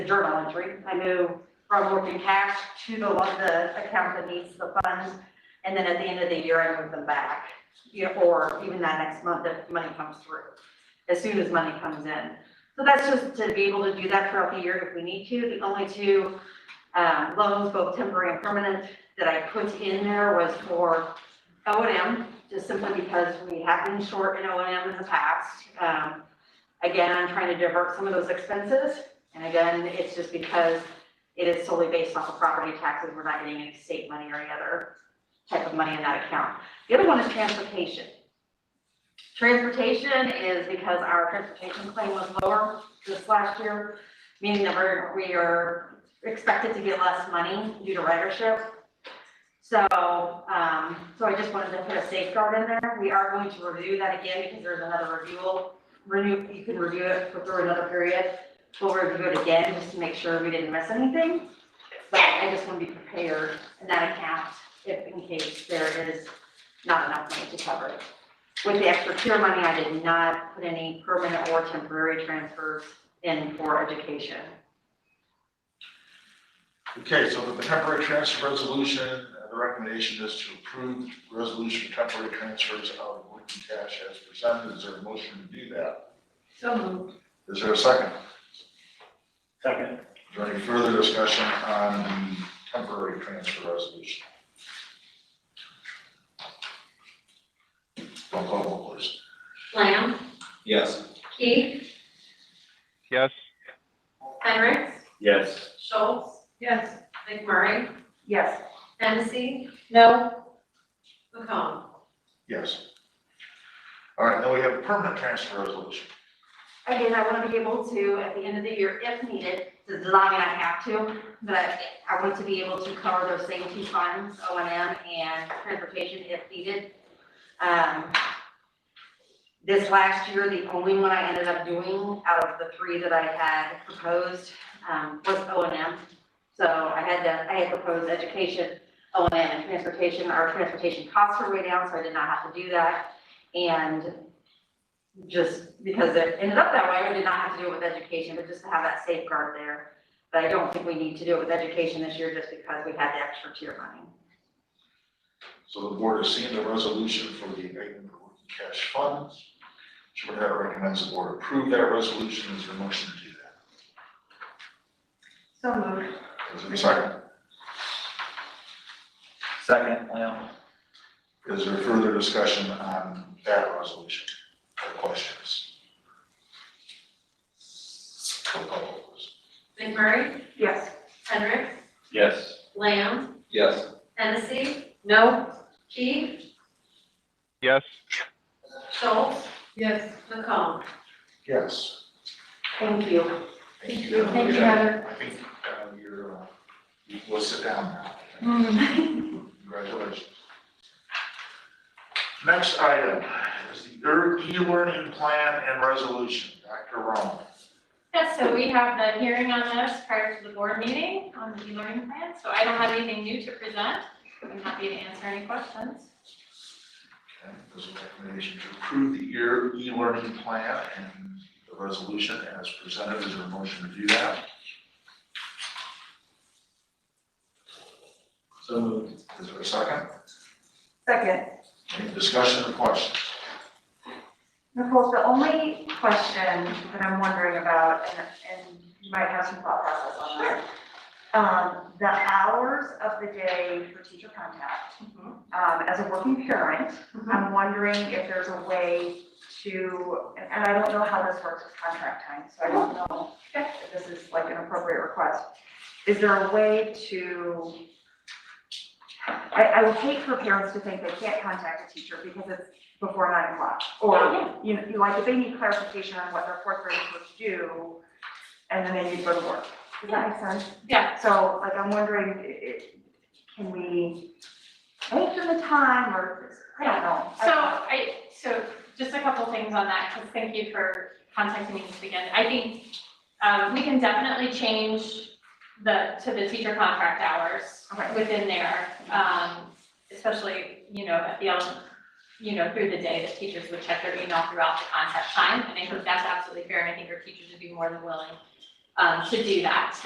the journal entry. I know from working cash to the, one- the account that needs the funds. And then at the end of the year, I move them back, you know, or even that next month if money comes through, as soon as money comes in. So that's just to be able to do that throughout the year if we need to. The only two, um, loans, both temporary and permanent, that I put in there was for O and M, just simply because we have been short in O and M in the past. Um, again, I'm trying to divert some of those expenses, and again, it's just because it is solely based off of property taxes, we're not getting any state money or any other type of money in that account. The other one is transportation. Transportation is because our transportation claim was lower this last year, meaning that we're, we are expected to get less money due to ridership. So, um, so I just wanted to put a safeguard in there. We are going to review that again because there's another renewal. Renew, you can review it for through another period. We'll review it again just to make sure we didn't miss anything. But I just want to be prepared in that account if in case there is not enough money to cover it. With the extra tier money, I did not put any permanent or temporary transfers in for education. Okay, so the temporary transfer resolution, uh, the recommendation is to approve resolution for temporary transfers out of working cash as presented. Is there a motion to do that? So moved. Is there a second? Second. Is there any further discussion on the temporary transfer resolution? Roll call, vote, please. Lamb, Yes. Keith, yes, Henricks, Yes. Schultz. Yes. McMurray, Yes. Hennessy. No. McComb. Yes. All right, now we have a permanent transfer resolution. Again, I want to be able to, at the end of the year, if needed, does not mean I have to, but I want to be able to cover those same two funds, O and M and transportation if needed. Um, This last year, the only one I ended up doing out of the three that I had proposed um, was O and M. So I had to, I had proposed education, O and M, and transportation. Our transportation costs were way down, so I did not have to do that. And just because it ended up that way, we did not have to do it with education, but just to have that safeguard there. But I don't think we need to do it with education this year just because we had the extra tier money. So the board has seen the resolution for the abatement of working cash funds. Superintendent recommends the board approve that resolution. Is there a motion to do that? So moved. Is there a second? Second, Lamb. Is there further discussion on that resolution or questions? Roll call vote, please. McMurray, Yes. Henricks, Yes. Lamb, Yes. Hennessy. No. Keith, yes, Schultz. Yes. McComb. Yes. Thank you. Thank you. Thank you, Heather. I think uh, you're, uh, you will sit down now. Congratulations. Next item is the er- e-learning plan and resolution. Dr. Rome. Yes, so we have the hearing on this prior to the board meeting on the e-learning plan, so I don't have anything new to present. I'm happy to answer any questions. Okay, There's a recommendation to approve the ear- e-learning plan and the resolution as presented. Is there a motion to do that? So moved. Is there a second? Second, Any discussion or questions? Nicole, the only question that I'm wondering about, and, and you might have some thought process on this. Um, the hours of the day for teacher contact, um, as a working parent, I'm wondering if there's a way to, and and I don't know how this works with contract time, so I don't know if this is like an appropriate request. Is there a way to? I, I would hate for parents to think they can't contact a teacher because it's before nine o'clock. Or, you know, you like, if they need clarification on what their fourth grade is supposed to do, and then they need to go to work. Does that make sense? Yeah, So like, I'm wondering, i- i- can we alter the time or, I don't know. so I, so just a couple things on that, because thank you for contacting me this weekend. I think um, we can definitely change the, to the teacher contract hours Okay. within there. um, Especially, you know, at the, ele- you know, through the day, the teachers would check their email throughout the contact time. And I think that's absolutely fair, and I think our teachers would be more than willing um, to do that.